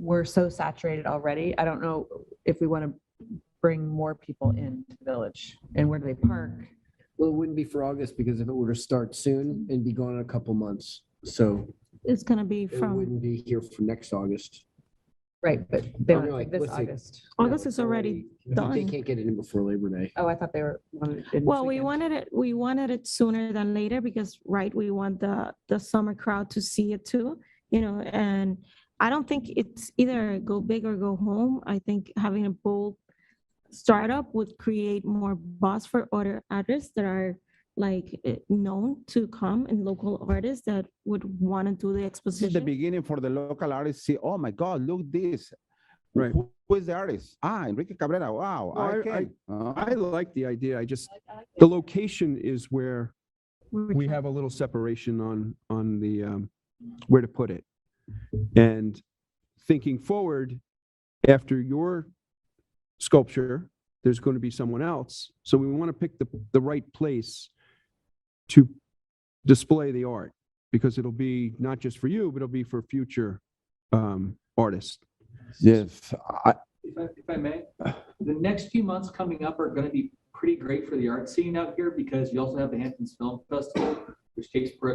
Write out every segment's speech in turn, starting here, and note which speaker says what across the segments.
Speaker 1: we're so saturated already. I don't know if we want to bring more people into the village and where do they park?
Speaker 2: Well, it wouldn't be for August because if it were to start soon
Speaker 3: Mm-hmm.
Speaker 2: and be gone in a couple months, so
Speaker 3: It's going to be
Speaker 2: it
Speaker 3: from,
Speaker 2: wouldn't be here for next August.
Speaker 1: Right, but they
Speaker 2: Oh,
Speaker 1: want
Speaker 2: no,
Speaker 1: it this
Speaker 2: let's see.
Speaker 1: August.
Speaker 3: August
Speaker 2: No,
Speaker 3: is
Speaker 2: it's
Speaker 3: already done.
Speaker 2: They can't get it in before Labor Day.
Speaker 1: Oh, I thought they were. wanted it this
Speaker 3: Well, we
Speaker 1: weekend.
Speaker 3: wanted it, we wanted it sooner than later because, right, we want the, the summer crowd to see it too, you know, and I don't think it's either go big or go home. I think having a bold startup would create more buzz for other artists that are like eh, known to come and local artists that would want to do the
Speaker 4: This is the
Speaker 3: exposition.
Speaker 4: beginning for the local artists. See, oh my God, look this.
Speaker 5: Right.
Speaker 4: Who- Who is the artist? Ah, Enrique Cabrera. Wow,
Speaker 5: No,
Speaker 4: I
Speaker 5: I- I-
Speaker 4: can. Uh,
Speaker 5: I like the idea. I just, the location is where we have a little separation on, on the, um, where to put it. And thinking forward, after your sculpture, there's going to be someone else. So we want to pick the, the right place to display the art because it'll be not just for you, but it'll be for future, um, artists.
Speaker 4: Yes, I,
Speaker 6: if I, if I may, the next few months coming up are going to be pretty great for the art scene out here because you also have the Hamptons Film Festival, which takes pr-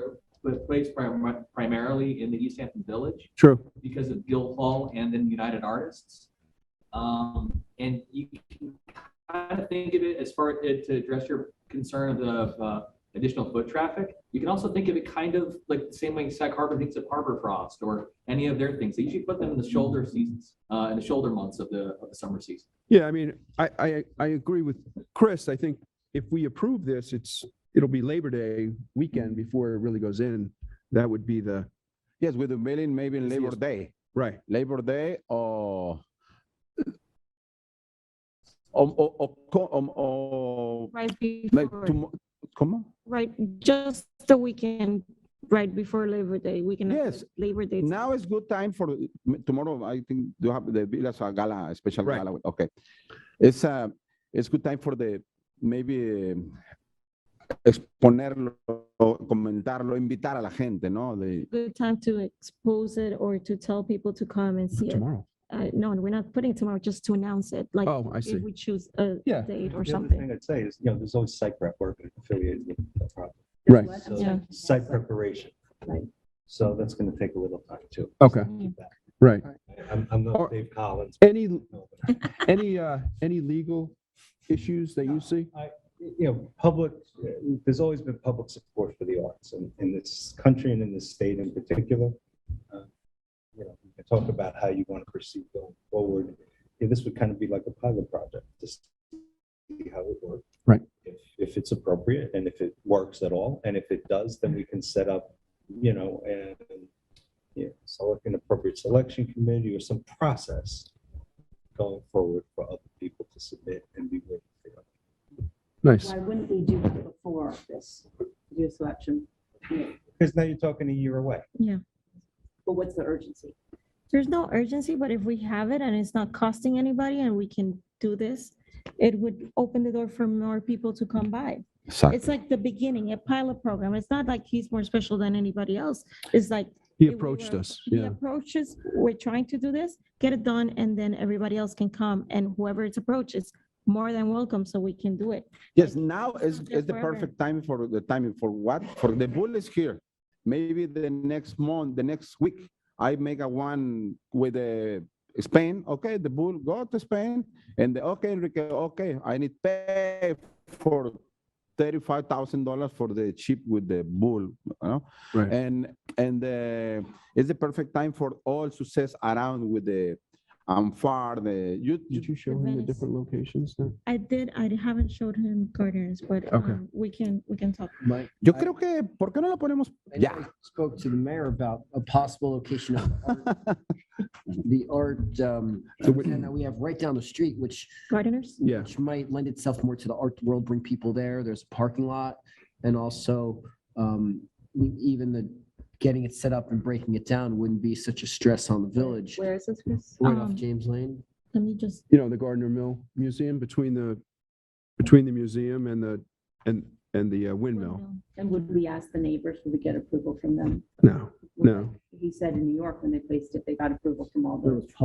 Speaker 6: place prim- primarily in the East Hampton Village
Speaker 5: True.
Speaker 6: because of Guildhall and then United Artists. Um, and you can kind of think of it as far as to address your concern of uh, additional foot traffic. You can also think of it kind of like the same way Sac Harbor thinks of Harbor Frost or any of their things. They usually put them in the shoulder seasons, uh, in the shoulder months of the of the summer season.
Speaker 5: Yeah, I mean, I, I, I agree with Chris. I think if we approve this, it's, it'll be Labor Day weekend before it really goes in. That would be the,
Speaker 4: yes, with the mailing, maybe in
Speaker 5: Yes,
Speaker 4: Labor
Speaker 5: yes.
Speaker 4: Day,
Speaker 5: right,
Speaker 4: Labor Day or or, or, or, co- um, or
Speaker 3: Right
Speaker 4: like
Speaker 3: before,
Speaker 4: tomorrow. Come on.
Speaker 3: right, just the weekend, right before Labor Day, we can. have
Speaker 4: Yes.
Speaker 3: the Labor Day.
Speaker 4: Now is good time for m- tomorrow. I think you have the Villas uh, Gala, a special
Speaker 5: Right.
Speaker 4: gala. Okay, it's uh, it's good time for the maybe um, exponerlo, comentarlo, invitar a la gente, ¿no? De,
Speaker 3: good time to expose it or to tell people to come and see it.
Speaker 5: tomorrow.
Speaker 3: Uh, no, we're not putting it tomorrow, just to announce it, like
Speaker 5: Oh, I see.
Speaker 3: if we choose a
Speaker 7: Yeah.
Speaker 3: date or
Speaker 7: The other
Speaker 3: something.
Speaker 7: thing I'd say is, you know, there's always site prep work affiliated with the property.
Speaker 5: Right.
Speaker 7: So
Speaker 3: Yeah.
Speaker 7: site preparation.
Speaker 1: Right.
Speaker 7: So that's going to take a little time too.
Speaker 5: Okay,
Speaker 7: Keep that.
Speaker 5: right.
Speaker 7: I'm, I'm
Speaker 5: Or-
Speaker 7: not Dave Collins.
Speaker 5: Any,
Speaker 7: no, but
Speaker 5: any, uh, any legal issues that you see?
Speaker 7: you know, public, uh, there's always been public support for the arts in, in this country and in this state in particular. Uh, You know, we can talk about how you want to proceed going forward. Yeah, This would kind of be like a pilot project, just see how it works.
Speaker 5: Right.
Speaker 7: If, if it's appropriate and if it works at all, and if it does, then we can set up, you know, and, yeah, select an appropriate selection committee or some process going forward for other people to submit and be waiting for.
Speaker 5: Nice.
Speaker 8: Why wouldn't we do it before this, do a selection?
Speaker 7: Because now you're talking a year away.
Speaker 8: But what's the urgency?
Speaker 3: There's no urgency, but if we have it and it's not costing anybody and we can do this, it would open the door for more people to come by. It's like the beginning, a pilot program. It's not like he's more special than anybody else. It's like
Speaker 5: He
Speaker 3: it- we
Speaker 5: approached
Speaker 3: were-
Speaker 5: us,
Speaker 3: He
Speaker 5: yeah.
Speaker 3: approaches, we're trying to do this, get it done, and then everybody else can come, and whoever it's approached is more than welcome, so we can do it.
Speaker 4: yes, now is,
Speaker 3: Something
Speaker 4: is the
Speaker 3: forever.
Speaker 4: perfect time for the timing for what? For the bull is here. Maybe the next month, the next week, I make a one with uh Spain. Okay, the bull go to Spain and the, okay, Enrique, okay, I need pay for thirty-five thousand dollars for the chip with the bull, you know?
Speaker 5: Right.
Speaker 4: And and uh, it's the perfect time for all success around with the Amfar. The you,
Speaker 5: Did you
Speaker 4: you
Speaker 5: show him the
Speaker 3: Venice.
Speaker 5: different locations? then?
Speaker 3: I did, I haven't showed him gardeners, but
Speaker 5: Okay.
Speaker 3: um, we can, we can talk.
Speaker 2: Mike,
Speaker 4: yo
Speaker 2: I-
Speaker 4: creo que ¿por qué no lo ponemos?
Speaker 2: I
Speaker 4: Yeah.
Speaker 2: I Spoke to the mayor about a possible location of art- the art, um,
Speaker 5: So we-
Speaker 2: and that we have right down the street, which,
Speaker 3: Gardeners?
Speaker 5: Yeah.
Speaker 2: which might lend itself more to the art world, bring people there. There's a parking lot. And also, um, even the getting it set up and breaking it down wouldn't be such a stress on the village.
Speaker 8: Where is this, Chris?
Speaker 2: Right off
Speaker 3: Um,
Speaker 2: James Lane.
Speaker 3: Let me just,
Speaker 5: you know, the Gardner Mill Museum between the, between the museum and the, and, and the uh, windmill.
Speaker 8: And would we ask the neighbors, would we get approval from them?
Speaker 5: No, no.
Speaker 8: He said in New York, when they placed it, they got approval from all the
Speaker 2: There was public